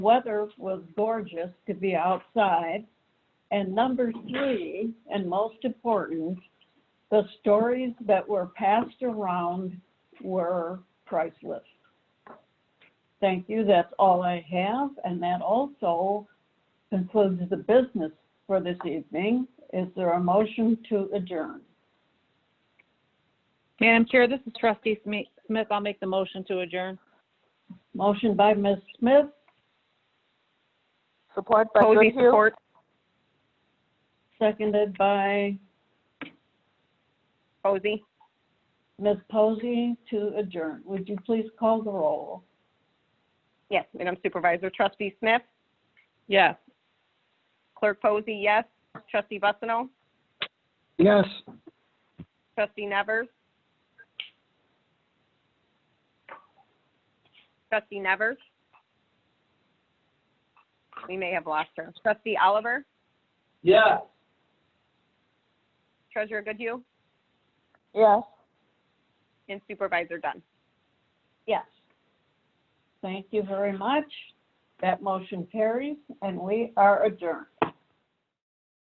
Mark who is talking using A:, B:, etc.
A: Weather was gorgeous to be outside. And number three, and most important, the stories that were passed around were priceless. Thank you. That's all I have. And that also concludes the business for this evening. Is there a motion to adjourn?
B: Madam Chair, this is trustee Sme- Smith. I'll make the motion to adjourn.
A: Motion by Ms. Smith,
C: Support by
B: Posey,
C: Goodhue.
B: support.
A: seconded by
B: Posey?
A: Ms. Posey to adjourn. Would you please call the roll?
C: Yes, Madam Supervisor. Trustee Smith,
B: Yes.
C: Clerk Posey, yes. Trustee Bussino,
D: Yes.
C: Trustee Nevers. Trustee Nevers. We may have lost her. Trustee Oliver,
D: Yeah.
C: Treasurer Goodhue,
A: Yes.
C: and Supervisor Dunn.
A: Yes. Thank you very much. That motion carries and we are adjourned.